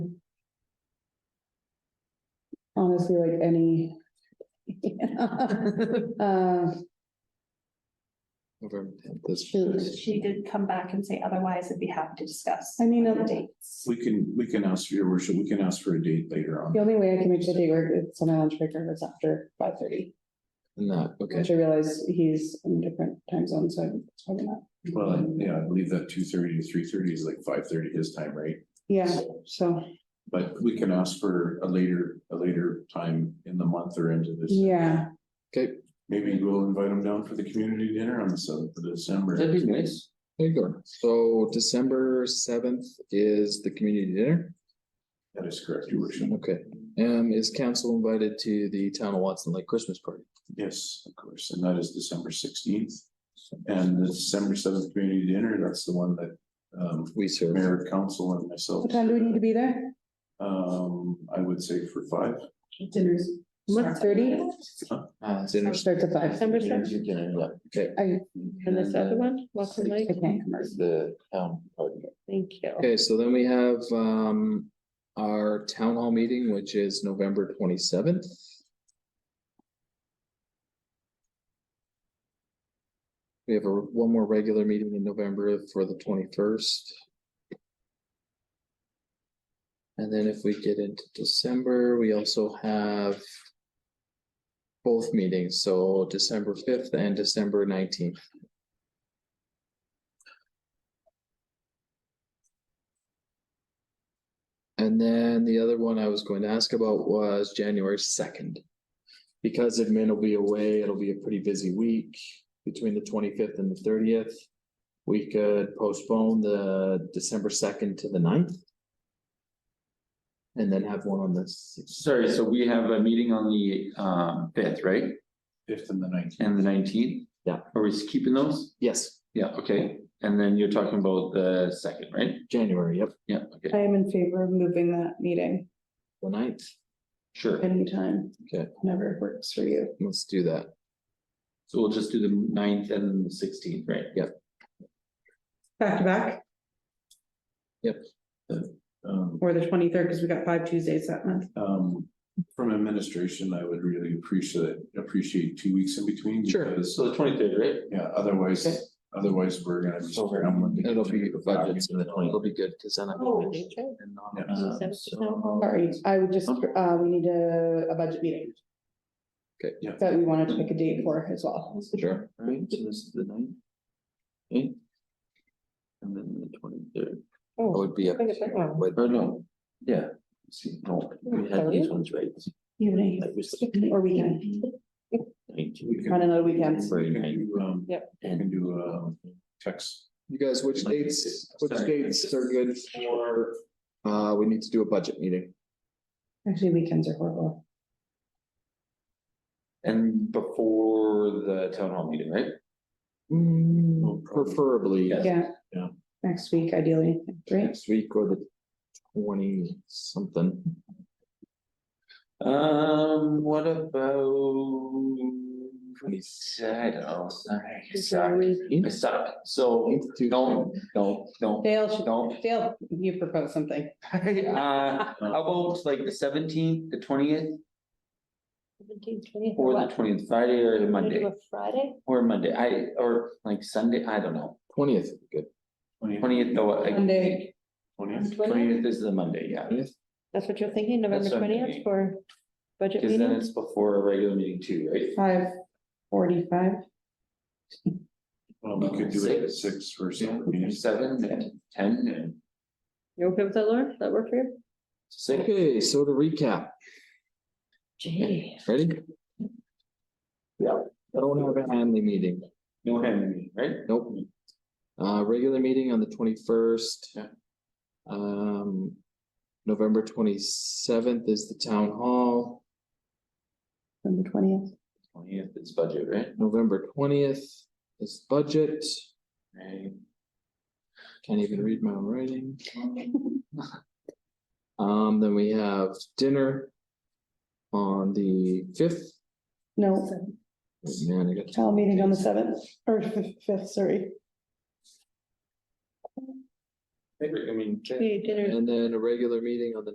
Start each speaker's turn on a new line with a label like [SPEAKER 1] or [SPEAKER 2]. [SPEAKER 1] honestly like any. Uh,
[SPEAKER 2] November tenth, that's.
[SPEAKER 1] Shoot.
[SPEAKER 3] She did come back and say otherwise, I'd be happy to discuss.
[SPEAKER 1] I mean,
[SPEAKER 3] the
[SPEAKER 1] uh,
[SPEAKER 3] dates.
[SPEAKER 4] We can, we can ask for your worship, we can ask for a date later on.
[SPEAKER 1] the only way I can make sure they work is on my lunch break or if it's after five thirty,
[SPEAKER 2] No, okay,
[SPEAKER 1] which I realize he's in a different time zone, so it's probably not.
[SPEAKER 4] Well, yeah, I believe that two thirty to three thirty is like five thirty his time, right?
[SPEAKER 1] Yeah, so,
[SPEAKER 4] But we can ask for a later, a later time in the month or into this.
[SPEAKER 1] yeah,
[SPEAKER 2] okay,
[SPEAKER 4] Maybe we'll invite him down for the community dinner on the seventh of
[SPEAKER 2] that'd
[SPEAKER 4] December.
[SPEAKER 2] be nice. There you go. So December seventh is the community dinner.
[SPEAKER 4] That is correct, your worship.
[SPEAKER 2] Okay, um, is council invited to the town of Watson Lake Christmas party?
[SPEAKER 4] Yes, of course, and that is December sixteenth. And the December seventh community dinner, that's the one that um
[SPEAKER 2] We serve.
[SPEAKER 4] mayor, council and myself.
[SPEAKER 1] what time do we need to be there?
[SPEAKER 4] Um, I would say for five.
[SPEAKER 3] Dinners.
[SPEAKER 1] What, thirty?
[SPEAKER 2] Uh, dinner.
[SPEAKER 1] Starts at five.
[SPEAKER 5] December seventh,
[SPEAKER 2] Okay,
[SPEAKER 1] I,
[SPEAKER 5] and this other one, Welcome Lake,
[SPEAKER 1] I can't.
[SPEAKER 2] the town party.
[SPEAKER 5] thank you.
[SPEAKER 2] Okay, so then we have um our town hall meeting, which is November twenty seventh. We have a one more regular meeting in November for the twenty first. And then if we get into December, we also have both meetings, so December fifth and December nineteenth. And then the other one I was going to ask about was January second. Because admin will be away, it'll be a pretty busy week between the twenty-fifth and the thirtieth. We could postpone the December second to the 9th, And then have one on the sixth.
[SPEAKER 6] Sorry, so we have a meeting on the um fifth, right?
[SPEAKER 4] Fifth and the nineteenth.
[SPEAKER 6] And the nineteenth?
[SPEAKER 2] Yeah.
[SPEAKER 6] Are we keeping those?
[SPEAKER 2] Yes,
[SPEAKER 6] Yeah, okay. And then you're talking about the second, right?
[SPEAKER 2] January, yep,
[SPEAKER 6] Yeah, okay,
[SPEAKER 1] I am in favor of moving that meeting
[SPEAKER 2] the 9th.
[SPEAKER 6] sure.
[SPEAKER 1] anytime.
[SPEAKER 2] Okay.
[SPEAKER 1] Whenever it works for you.
[SPEAKER 2] Let's do that.
[SPEAKER 6] So we'll just do the ninth and the sixteenth, right?
[SPEAKER 7] back to back,
[SPEAKER 4] Um,
[SPEAKER 7] or the twenty-third, because we got five Tuesdays that month.
[SPEAKER 4] um, from administration, I would really appreciate, appreciate two weeks in between.
[SPEAKER 2] Sure.
[SPEAKER 4] because,
[SPEAKER 6] So the twenty-third, right?
[SPEAKER 4] Yeah, otherwise, otherwise we're gonna be scrambling. to get
[SPEAKER 2] It'll be
[SPEAKER 4] the
[SPEAKER 2] budgets in the
[SPEAKER 4] documents.
[SPEAKER 2] 20th. It'll be good, because then I'm.
[SPEAKER 5] Oh,
[SPEAKER 6] um,
[SPEAKER 4] Yeah.
[SPEAKER 5] Seventh is town hall.
[SPEAKER 1] Sorry, I would just,
[SPEAKER 6] Okay.
[SPEAKER 1] uh, we need a, a budget meeting.
[SPEAKER 2] Okay.
[SPEAKER 4] Yeah.
[SPEAKER 1] That we wanted to pick a date for as well.
[SPEAKER 2] Sure.
[SPEAKER 6] Right, so this is the ninth. Okay. And then the twenty-third,
[SPEAKER 5] Oh,
[SPEAKER 2] That would be up to you, but-
[SPEAKER 6] or no, yeah, see, no, we had these ones, right?
[SPEAKER 1] Evening
[SPEAKER 6] That was
[SPEAKER 1] or weekend,
[SPEAKER 4] We
[SPEAKER 1] on
[SPEAKER 4] can,
[SPEAKER 1] another weekend.
[SPEAKER 4] we can
[SPEAKER 6] the.
[SPEAKER 4] do, um,
[SPEAKER 5] Yep.
[SPEAKER 4] we can do, um, text.
[SPEAKER 2] You guys, which dates, which
[SPEAKER 6] Sorry.
[SPEAKER 2] dates are good for, uh, we need to do a budget meeting.
[SPEAKER 1] Actually, weekends are horrible.
[SPEAKER 6] And before the town hall meeting, right? Oh,
[SPEAKER 2] Mm,
[SPEAKER 4] problem.
[SPEAKER 2] preferably
[SPEAKER 6] Yeah.
[SPEAKER 1] Yeah.
[SPEAKER 4] Yeah.
[SPEAKER 1] Next week ideally, right?
[SPEAKER 2] next week or the twenty something.
[SPEAKER 6] Um, what about? I don't know, Oh, sorry, I suck. I suck, so, no, no, no,
[SPEAKER 1] Dale, should-
[SPEAKER 6] no.
[SPEAKER 1] Dale, you propose something.
[SPEAKER 6] Uh, how about like the seventeenth, the twentieth,
[SPEAKER 5] Seventeenth, twentieth,
[SPEAKER 6] or the
[SPEAKER 5] what?
[SPEAKER 6] twentieth, Friday or
[SPEAKER 5] Wanna do
[SPEAKER 6] Monday,
[SPEAKER 5] a Friday?
[SPEAKER 6] or Monday, I, or like Sunday, I don't know.
[SPEAKER 2] Twentieth, good.
[SPEAKER 6] Twentieth, though, like.
[SPEAKER 1] Monday.
[SPEAKER 4] Twentieth,
[SPEAKER 6] Twentieth is the Monday, yeah,
[SPEAKER 5] That's what you're thinking, November
[SPEAKER 6] That's what I'm
[SPEAKER 5] twentieth
[SPEAKER 6] thinking.
[SPEAKER 5] for budget
[SPEAKER 6] because then
[SPEAKER 5] meeting?
[SPEAKER 6] it's before a regular meeting too, right?
[SPEAKER 1] Five forty-five.
[SPEAKER 4] well, we could do it at six or
[SPEAKER 6] Yeah,
[SPEAKER 4] something.
[SPEAKER 6] Seven and ten and
[SPEAKER 5] You okay with that, Laura? Does That work for you?
[SPEAKER 6] six.
[SPEAKER 2] Okay, so to recap,
[SPEAKER 5] Gee.
[SPEAKER 2] ready?
[SPEAKER 6] Yeah.
[SPEAKER 2] Don't have a Hanley meeting,
[SPEAKER 6] No hand meeting, right?
[SPEAKER 2] nope. Uh, regular meeting on the twenty-first.
[SPEAKER 6] Yeah.
[SPEAKER 2] Um, November twenty-seventh is the town hall,
[SPEAKER 1] November twentieth.
[SPEAKER 6] Twentieth is budget, right?
[SPEAKER 2] November twentieth is budget,
[SPEAKER 6] Right.
[SPEAKER 2] can't even read my own writing. Um, then we have dinner on the fifth.
[SPEAKER 1] No,
[SPEAKER 2] Oh, Man, I got,
[SPEAKER 1] town meeting on the seventh or fif- fifth, sorry.
[SPEAKER 6] I mean.
[SPEAKER 5] Okay, dinner.
[SPEAKER 2] and then a regular meeting on the